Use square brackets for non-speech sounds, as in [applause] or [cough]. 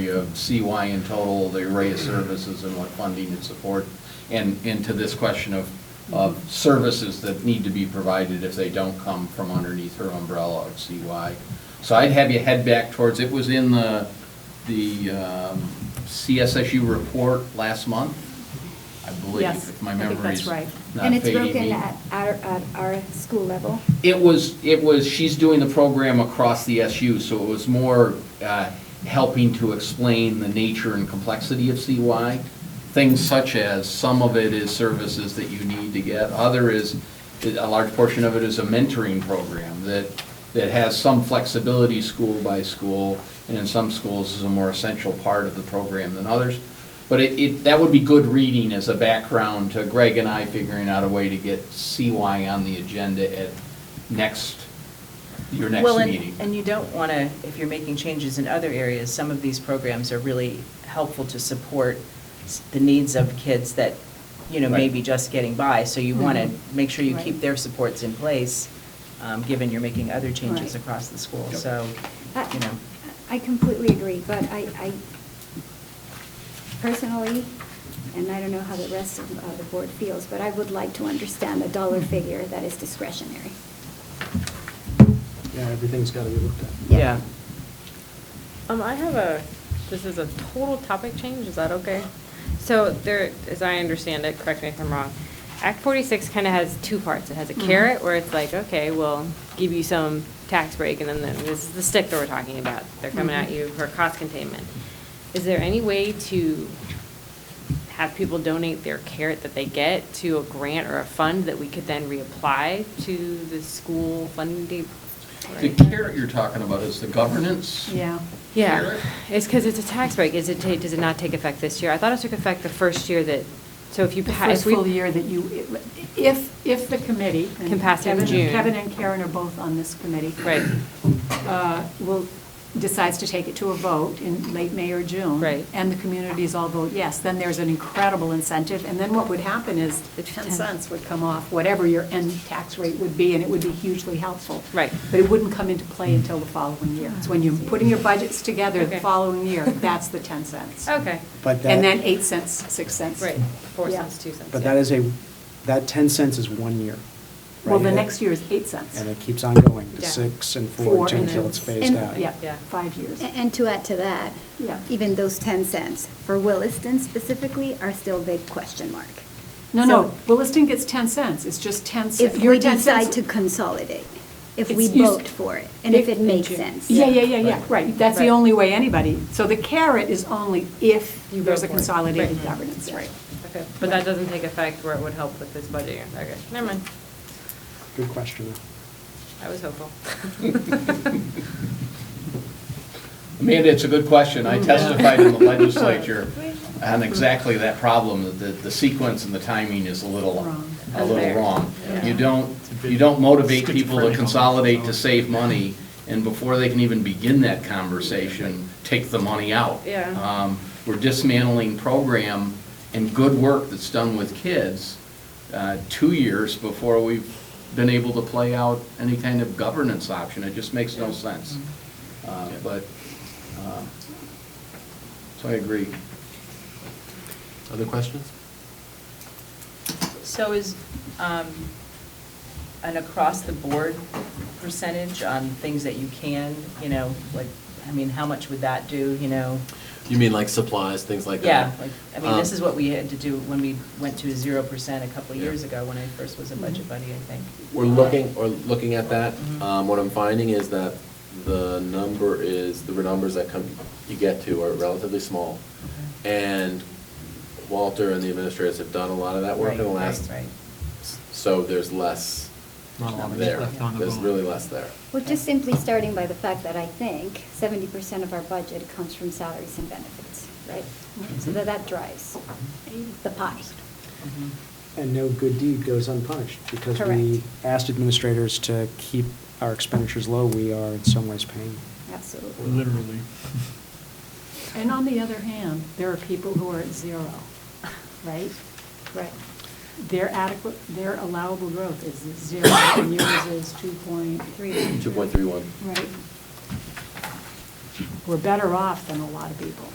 of CY in total, the array of services and what funding and support, and, and to this question of, of services that need to be provided if they don't come from underneath her umbrella of CY. So I'd have you head back towards, it was in the, the um, CSSU report last month, I believe, Yes, if my I think memory's that's not right. And it's fading broken me. at our, at our school level. It was, it was, she's doing the program across the SU, so it was more uh, helping to explain the nature and complexity of CY. Things such as, some of it is services that you need to get, other is, a large portion of it is a mentoring program that, that has some flexibility school by school, and in some schools is a more essential part of the program than others. But it, it, that would be good reading as a background to Greg and I figuring out a way to get CY on the agenda at next, your next Well, and- meeting. And you don't want to, if you're making changes in other areas, some of these programs are really helpful to support s- the needs of kids that, you know, may Right. be just getting by. So you want to Mhm. make sure you Right. keep their supports in place, um, given you're making other Right. changes across the school. Yep. So, I- you know. I completely agree, but I, I personally, and I don't know how the rest of uh, the board feels, but I would like to understand the dollar Mm-hmm. figure that is discretionary. Yeah, everything's got to be looked at. Yeah. Yeah. Um, I have a, this is a total topic change, is that okay? So there, as I understand it, correct me if I'm wrong, Act forty-six kind of has two parts. It has a Mhm. carrot where it's like, okay, we'll give you some tax break, and then the- this is the stick that we're talking about. They're coming at Mhm. you for cost containment. Is there any way to have people donate their carrot that they get to a grant or a fund that we could then reapply to the school funding? The carrot you're talking about is the governance? Yeah. Yeah, Carrot? it's because it's a tax break, is it, ta- does it not take effect this year? I thought it took effect the first year that, so if you The pass. first full year that you, if, if the committee. and Can pass it in Kevin- June. Kevin and Karen are both on this committee. Right, uh, Will, decides to take it to a vote in late May or June. Right. And the communities all vote yes, then there's an incredible incentive. And then what would happen is the 10 Ten. cents would come off, whatever your end tax rate would be, and it would be hugely helpful. Right. But it wouldn't come into play until the following year. It's when you're putting your budgets together Okay. the following year, that's the 10 cents. okay, But And then that, 8 cents, 6 cents. right, four Yeah. cents, two cents. but yeah. that is a, that 10 cents is one year. Well, right? the And it- next year is 8 cents. And it keeps on going to Yeah. six and Four four two and until then- it's phased and- out. Yeah, Yeah. five years. A- And to add to that, Yeah. even those 10 cents for Williston specifically are still big question mark. No, So no, Williston gets 10 cents, it's just 10 cents. If we decide to consolidate, if we It's- you s- vote for it, and if it makes sense. Yeah, yeah, yeah, yeah, right, that's the Right. only way anybody, so the carrot is only if You there's vote a for it. consolidated Right. governance, Yeah. right. Okay, but that doesn't take effect where it would help with this budget year, okay, never mind, Good question. I was hopeful. [laughs] Amanda, it's a good question. I testified in the legislature on exactly that problem, that the- the sequence and the timing is a little, Wrong. a little Unfair. wrong. Yeah. You don't, you don't motivate people to consolidate to save money, and before they can even begin that conversation, take the money out. Yeah. Um, We're dismantling program and good work that's done with kids uh, two years before we've been able to play out any kind of governance option. It just makes no sense. Uh, But, uh, so I agree. Other questions? So is um, an across-the-board percentage on things that you can, you know, like, I mean, how much would that do, you know? You mean like supplies, things like Yeah, that? like, I mean, this Um, is what we had to do when we went to zero percent a couple of Yeah. years ago, when I first was a budget buddy, I think. We're looking, or looking at that. Mm-hmm. Mhm. Um, What I'm finding is that the number is, the numbers that come, you get to are relatively small. And Walter and the administrators have done a lot of that work in the Right, right, last, right. so there's less Not a lot of there. left on the There's bone. really less there. Well, just simply starting by the fact that I think seventy percent of our budget comes from salaries and benefits, right? So that, that drives the pie. Mhm. And no good deed goes unpunished, because Correct. we asked administrators to keep our expenditures low, we are in some ways paying. Absolutely. Literally. And on the other hand, there are people who are at zero, right? Right. Their adequate, their allowable growth is zero, and yours is 2.3, Three. 2.31. right? We're better off than a lot of people.